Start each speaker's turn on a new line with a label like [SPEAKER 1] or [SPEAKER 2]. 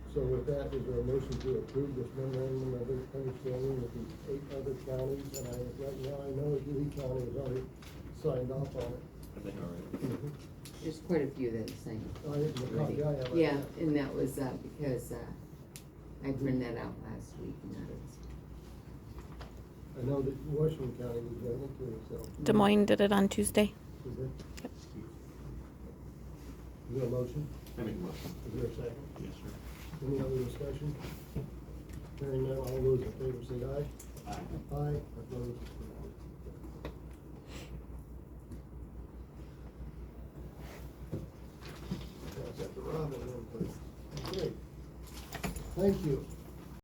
[SPEAKER 1] So with that, is there a motion to approve this memorandum of understanding with the eight other counties? And I, right now, I know that Lee County has already signed off on it.
[SPEAKER 2] I think all right.
[SPEAKER 1] I
[SPEAKER 3] There's quite a few that are saying.
[SPEAKER 1] didn't, the copy I have. I-
[SPEAKER 3] Yeah, and that was, uh, because, uh, I printed that out last week and that was.
[SPEAKER 1] I know that Washington County was doing it too, so.
[SPEAKER 4] Des Moines did it on Tuesday.
[SPEAKER 1] Is there- is there a motion?
[SPEAKER 2] I make a motion.
[SPEAKER 1] Is there a second?
[SPEAKER 2] Yes, sir.
[SPEAKER 1] Any other discussion? Hearing none, all those in favor say aye. Aye, opposed, no. That's at the Robin, then, please. Okay. Thank you.